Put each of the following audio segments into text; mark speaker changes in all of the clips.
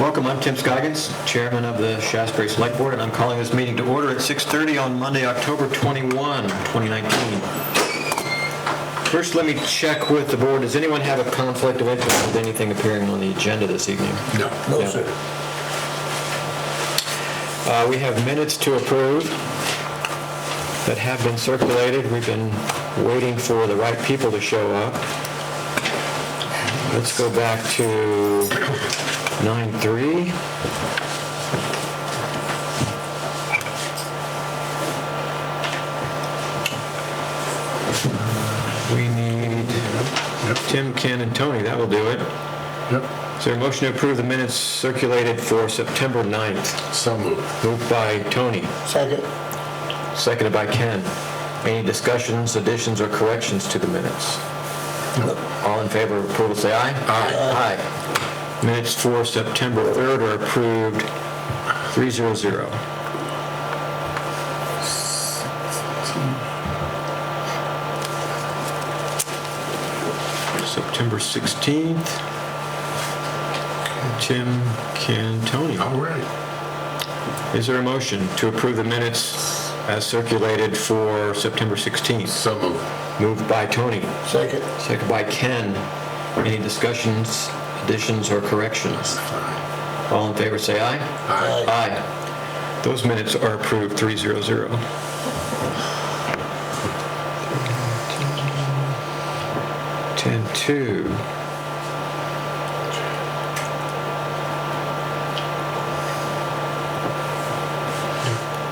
Speaker 1: Welcome, I'm Tim Scoggins, Chairman of the Shasberry Select Board, and I'm calling this meeting to order at 6:30 on Monday, October 21, 2019. First, let me check with the board, does anyone have a conflict of interest with anything appearing on the agenda this evening?
Speaker 2: No.
Speaker 1: No, sir. Uh, We have minutes to approve that have been circulated. We've been waiting for the right people to show up. Let's go back to 9:3. We need Tim, Ken, and Tony. That will do it.
Speaker 2: Yep,
Speaker 1: Is there a motion to approve the minutes circulated for September 9th?
Speaker 2: so moved.
Speaker 1: Moved by Tony.
Speaker 2: Second.
Speaker 1: Seconded by Ken. Any discussions, additions, or corrections to the minutes? All in favor of approval, say aye. Aye. Minutes for September 3rd are approved, 300. September 16th. Tim, Ken, Tony.
Speaker 2: All right.
Speaker 1: Is there a motion to approve the minutes as circulated for September 16th?
Speaker 2: So moved.
Speaker 1: Moved by Tony,
Speaker 2: Second.
Speaker 1: second by Ken. Any discussions, additions, or corrections? All in favor, say aye.
Speaker 2: Aye.
Speaker 1: Aye. Those minutes are approved, 300. Ten two.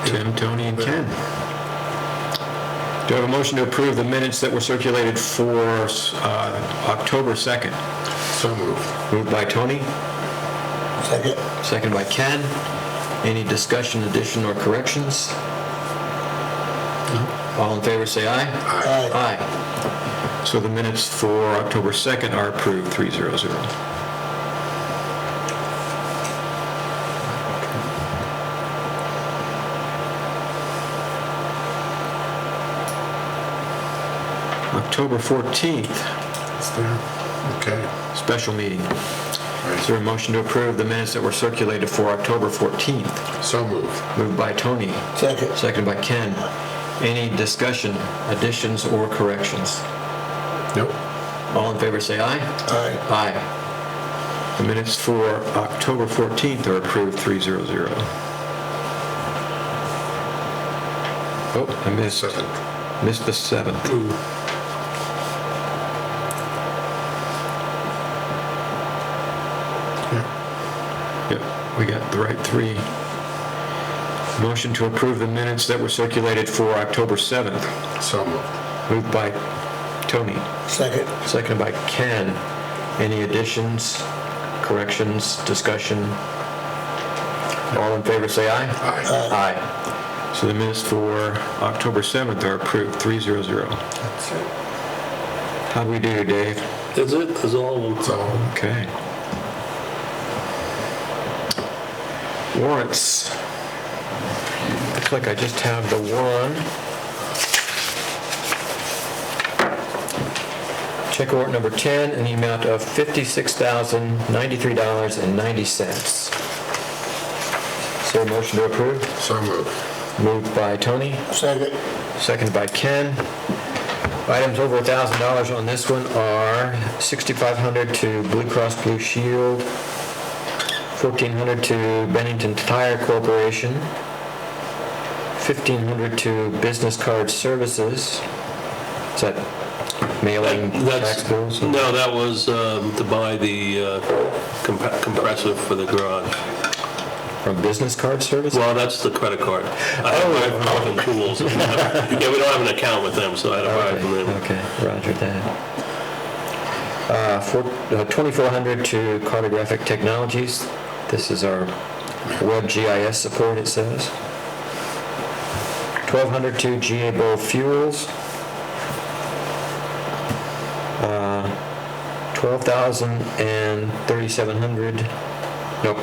Speaker 1: Tim, Tony, and Ken. Do I have a motion to approve the minutes that were circulated for uh, October 2nd?
Speaker 2: So moved.
Speaker 1: Moved by Tony?
Speaker 2: Second.
Speaker 1: Second by Ken. Any discussion, addition, or corrections? All in favor, say aye.
Speaker 2: Aye.
Speaker 1: Aye. So the minutes for October 2nd are approved, 300. October 14th,
Speaker 2: It's there. Okay.
Speaker 1: special meeting. Is there a motion to approve the minutes that were circulated for October 14th?
Speaker 2: So moved.
Speaker 1: Moved by Tony,
Speaker 2: Second.
Speaker 1: seconded by Ken. Any discussion, additions, or corrections?
Speaker 2: Nope.
Speaker 1: All in favor, say aye.
Speaker 2: Aye.
Speaker 1: Aye. The minutes for October 14th are approved, 300. Oh, Oh, I missed,
Speaker 2: Seven.
Speaker 1: missed the 7th.
Speaker 2: Ooh. Yeah.
Speaker 1: Yep, we got the right three. Motion to approve the minutes that were circulated for October 7th.
Speaker 2: So moved.
Speaker 1: Moved by Tony.
Speaker 2: Second.
Speaker 1: Seconded by Ken. Any additions, corrections, discussion? All in favor, say aye.
Speaker 2: Aye.
Speaker 1: Aye. So the minutes for October 7th are approved, 300. How'd we do, Dave?
Speaker 3: That's it, that's all of them.
Speaker 2: So,
Speaker 1: Okay. Warrants. Looks like I just have the one. Check warrant number 10 in the amount of $56,093.90. Is there a motion to approve?
Speaker 2: so moved.
Speaker 1: Moved by Tony,
Speaker 2: Second.
Speaker 1: seconded by Ken. Items over $1,000 on this one are 6,500 to Blue Cross Blue Shield, 1,400 to Bennington Tire Corporation, 1,500 to Business Card Services. Is that mailing tax
Speaker 3: That's,
Speaker 1: bills?
Speaker 3: no, that was um, to buy the uh, comp- compressor for the garage.
Speaker 1: From Business Card Services?
Speaker 3: Well, that's the credit card. I
Speaker 1: Oh.
Speaker 3: have my fucking tools. Yeah, we don't have an account with them, so I had to buy it from them.
Speaker 1: Okay, roger that. Uh, four- uh, 2400 to Cartographic Technologies. This is our web GIS support, it says. 1200 to GA Bow Fuels. Uh, 12,000 and 3,700, nope.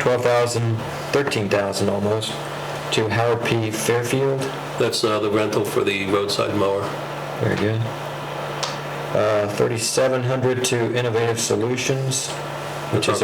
Speaker 1: 12,000, 13,000 almost, to Howard P. Fairfield.
Speaker 3: That's uh, the rental for the roadside mower.
Speaker 1: Very good. Uh, 3,700 to Innovative Solutions, which is